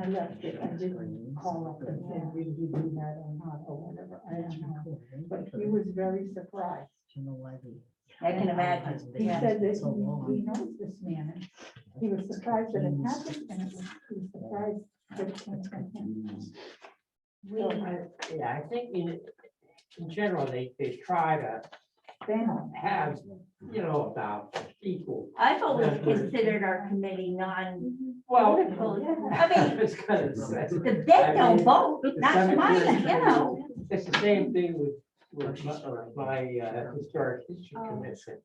I left it, I didn't call up and say, did you do that or not, or whatever, I don't know. But he was very surprised. I can imagine. He said that he he knows this man, and he was surprised that it happened, and it was- he was surprised that it came from him. We, yeah, I think in, in general, they, they try to Then, have, you know, about equal. I've always considered our committee non, Well. Political, yeah. I mean- It's kind of the same. if they don't vote, The that's mine, you cemetery- know. It's the same thing with, with my- uh, my uh, historic history Oh. commission.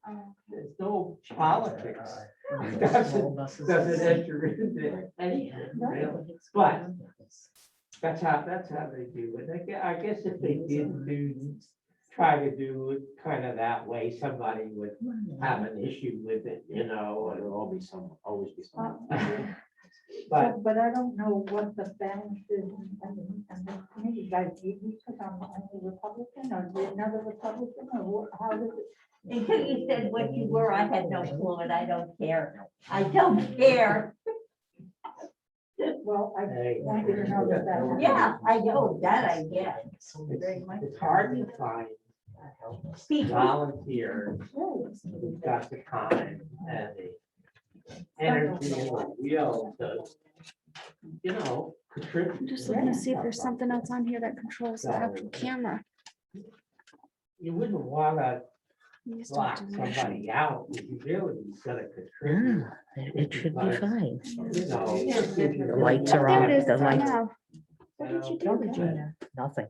There's no politics. Doesn't enter into anything, really. But that's how, that's how they do it. I gue- I guess if they did do, try to do it kind of that way, somebody would have an issue with it, you know, and There'll all. Ah, always be some, always be Uh, some. But but I don't know what the balance is, and- and, and the committee guys, do you because I'm only Republican, or do you another Republican, or what- how does it? Until you said what you were, I had no clue and I don't care. I don't care. Well, I Hey. wanted to know that that. happened. Yeah, I know, that I get. It's it's hard to find People, volunteers Really? who've got the time and the energy and the will to, you know, contribute. Just looking to see if there's something else on here that controls the actual camera. You wouldn't wanna You just don't lock have to make sure. somebody out if you really gotta contribute. Hmm. It should be fine. You know. The lights are There on, it is, the I lights, know. What did you do with it? nothing.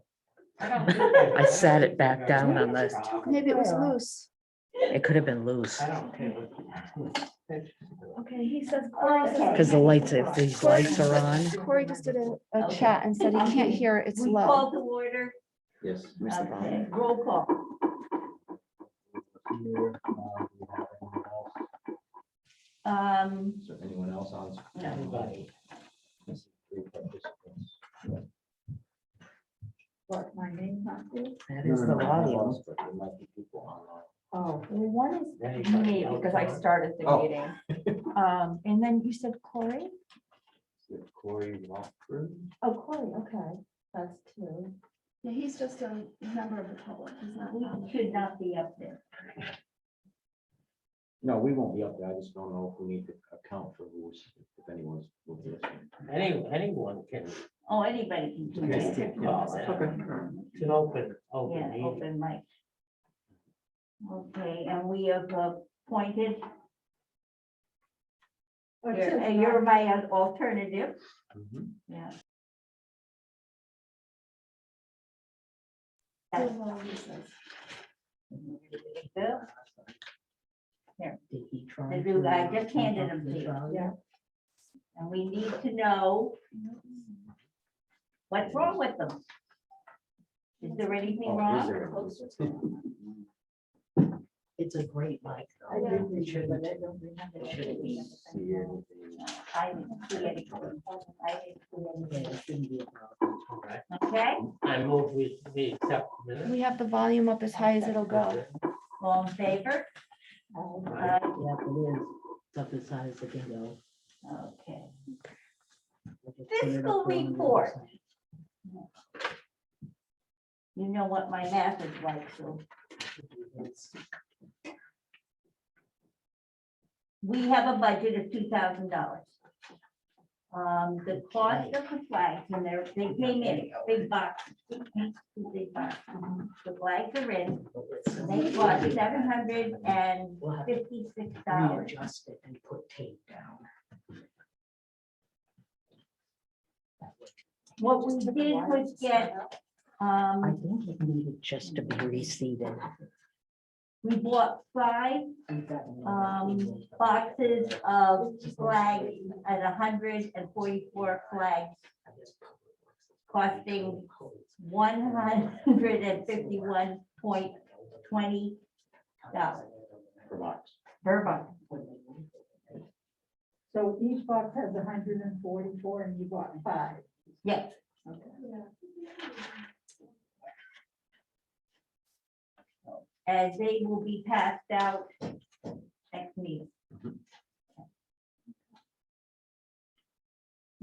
I I sat it back down on the- Maybe it was loose. It could have been loose, I don't care. what you- Okay, he says. Oh, Okay. because the lights, if these lights are on, Corey just did a, a Okay. chat and said he can't hear, it's we low. call to order. Yes. Where's the volume? Okay, Roll call. Here, uh, we have anyone else? Um, Is there anyone else on? no. Anybody. This is three participants. But my name not there? that is the No, no, no, no, volume. no, but There might be people online. Oh, well, one is Me, because I started the Oh. meeting. Um, and then you said Corey? Is it Corey Walker. Oh, Corey, okay, that's two. Yeah, he's just a member of the public. He's not. We should not be up there. No, we won't be up there. I just don't know if we need to account for who's, if anyone's. will be listening. Any, anyone can, Oh, anybody can do Okay. this. it's an open, open Yeah, meeting. open mic. Okay, and we have appointed, Oh, Or two, you're- and you're my alternative, Mhm. yeah. Bill, The dude, I just handed him to you. Yeah. And we need to know what's wrong with them. Is there anything Oh, is wrong? there anyone? It's a great mic. I didn't read it, but I don't remember. Should it See anything? I didn't see anything. I didn't see Yeah, anything. it shouldn't be a problem. All right. Okay, I move with the accept minutes. We have the volume up as high as it'll go. all in favor? Oh, Aye. Yeah, the lid is up as high as the window. Uh, Okay. Like it's cleared Fiscal up on the other report. side. You know what my math is like, so we have a budget of two thousand dollars. Um, the cost of the flags and they're, they came in, big box. Big box. The flags are in, they cost seven hundred and We'll have fifty-six to dollars. readjust it and put tape down. What we did was get, I um, think it needed just to be reseated. we bought five We've got another um, table. boxes of flags at hundred and forty-four flags, I guess public works is probably costing cold. one hundred and fifty-one point twenty dollars For Max. per box. So each box has hundred and forty-four and you bought five. Yes, and they will be passed out next meeting.